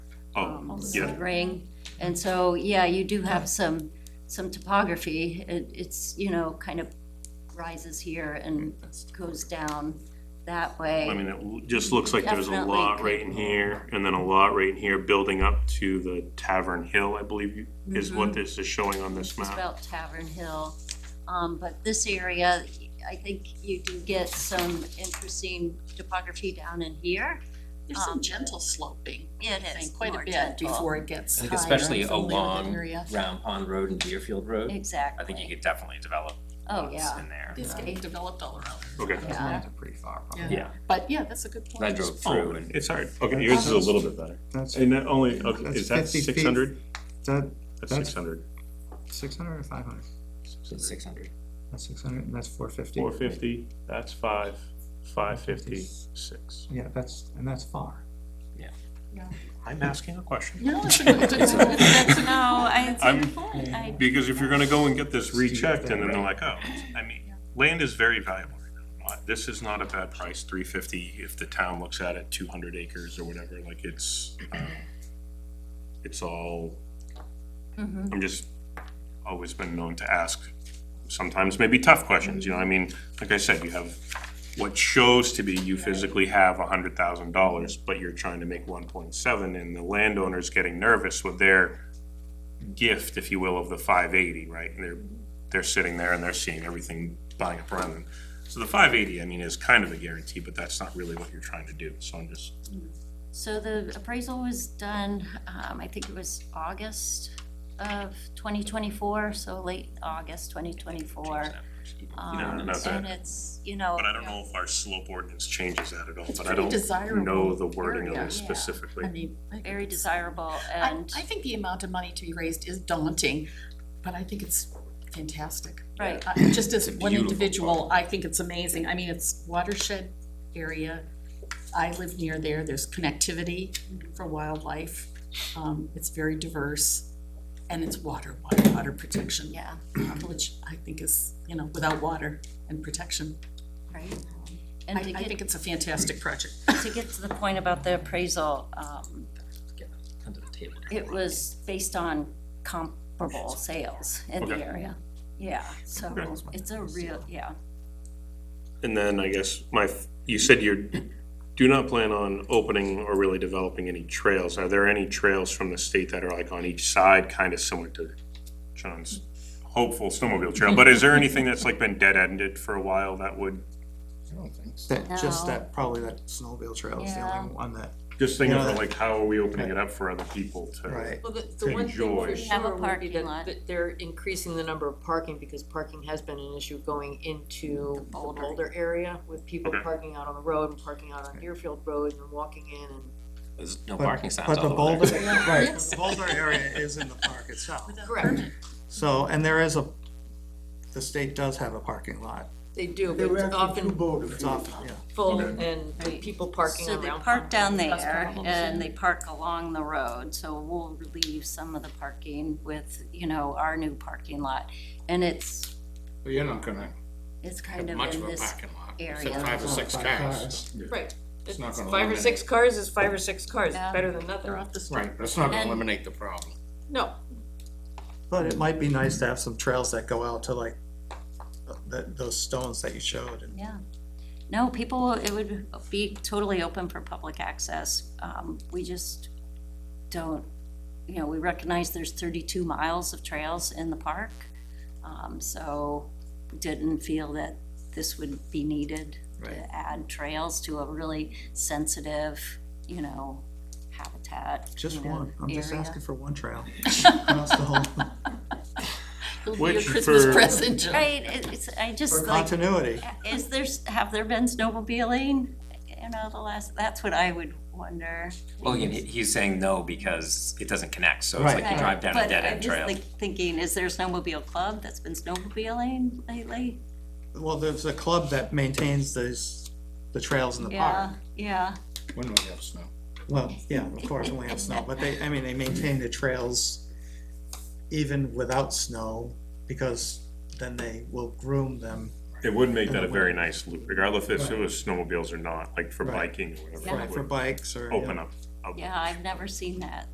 almost Um, Yeah. a ring. And so, yeah, you do have some, some topography. It, it's, you know, kind of rises here and goes down that I way. mean, it l- just looks like there's a Definitely lot could- right in here, and then a lot right in here, building up to the Tavern Hill, I believe, you- is what this is showing on this Mm-hmm. It's map. about Tavern Hill. Um, but this area, I think you do get some interesting topography down in here. There's some Um, gentle sloping, I It is think, quite a more bit gentle. before it gets I higher. think especially I'm familiar with that along area. Round Pond Road and Deerfield Road, Exactly. I think you could definitely develop Oh, lots yeah. in there. It's getting developed all around. Okay, Yeah. pretty far, Yeah. Yeah, But yeah, that's a good point. I drove oh, through and it's hard, okay, yours is a little bit better. That's, And that only, okay, That's is that 50 feet. six hundred? is that That's That's- six hundred. six hundred or five hundred? six hundred. That's six hundred, and that's four fifty. Four fifty, that's five, five fifty, six. Yeah, that's, and that's far. I'm asking a question. No, it's a good, it's a good, that's a- No, I, it's I'm- a point. I, Because if you're gonna go and get this Just to get rechecked and then that they're like, oh, I mean, land is very valuable. right now. Uh, This is not a bad price, three fifty, if the town looks at it, two hundred acres or whatever, like it's, um, it's all, Mhm. I'm just, always been known to ask sometimes maybe tough questions, you know, I mean, like I said, you have what shows to be you physically have a hundred thousand dollars, but you're trying to make one point seven and the landowner's getting nervous with their gift, if you will, of the five eighty, right? And they're, they're sitting there and they're seeing everything buying up around them. So the five eighty, I mean, is kind of a guarantee, but that's not really what you're trying to do, so I'm just, So the appraisal was done, um, I think it was August of twenty twenty-four, so late August twenty twenty-four. No, no, Um, no, that- and it's, you know, but I don't know if our slope ordinance changes that at all, It's but I pretty don't know desirable the wording of area, it yeah. specifically. I mean. I think very it's- desirable I, and, I think the amount of money to be raised is daunting, but I think it's fantastic. right, I- Just as It's a one beautiful individual, I think it's amazing. I mean, it's watershed area. I live near there. There's connectivity for wildlife. Um, it's very diverse. And it's water, water, water protection, uh, yeah, which I think is, you know, without water and protection. right. I, And to I think get, it's a fantastic project. to get to the point about the appraisal, um, it was based on comparable sales in the Okay. area. Yeah, so Okay. it's a real, yeah, And then I guess my, f- you said you're, do not plan on opening or really developing any trails. Are there any trails from the state that are like on each side, kind of similar to John's hopeful snowmobile trail? But is there anything that's like been dead-ended for a while that would, That, just No. that, probably that snowmobile trail is the Yeah. only one that, just thinking of like, how are we opening it up for other people to? right, Well, the, the one thing Enjoy. for Have a sure would be parking lot. that, that they're increasing the number of parking, because parking has been an issue going into the Boulder. Boulder area, with people Okay. parking out on the road and parking out on Deerfield Road and walking in and There's no But- parking signs but the all Boulder, over there. right, the Boulder area is in the park itself. Correct, So, and there is a, the state does have a parking lot, they do, but it's often it's often, yeah. full and with people parking so around. they park down That's there problems. and they park along the road, so we'll leave some of the parking with, you know, our new parking lot. And it's, Well, You're not gonna it's kind have of much in of a this, parking lot, area. except five or six Five cars. Right, It's not It's gonna five or eliminate, six cars is five or six cars, Yeah. It's better than nothing, They're off the street. right, that's not gonna And- eliminate the problem. no, But it might be nice to have some trails that go out to like, that, those stones that you showed and yeah. No, people, it would be totally open for public access. Um, we just don't, you know, we recognize there's thirty-two miles of trails in the park. Um, so didn't feel that this would be needed Right. to add trails to a really sensitive, you know, habitat, just you know, one, I'm just area. asking for one trail. Across the whole, It'll be your Which Christmas for- present, Jill. Right, it- it's, I for just like, continuity. is there, have there been snowmobiling? You know, the last, that's what I would wonder. Well, he, he's saying no because it doesn't connect, so it's Right. like you drive down a dead end But I'm trail. just like thinking, is there a snowmobile club that's been snowmobiling lately? Well, there's a club that maintains those, the trails in the Yeah, park. yeah, When do we have snow? Well, yeah, of course, when we have snow, but they, I mean, they maintain the trails even without snow, because then they will groom them. It would make that a very nice loop, regardless if it was snowmobiles or not, like for Right. biking or For, whatever. it for would bikes or. you know. Open up. a- yeah, I've never seen that.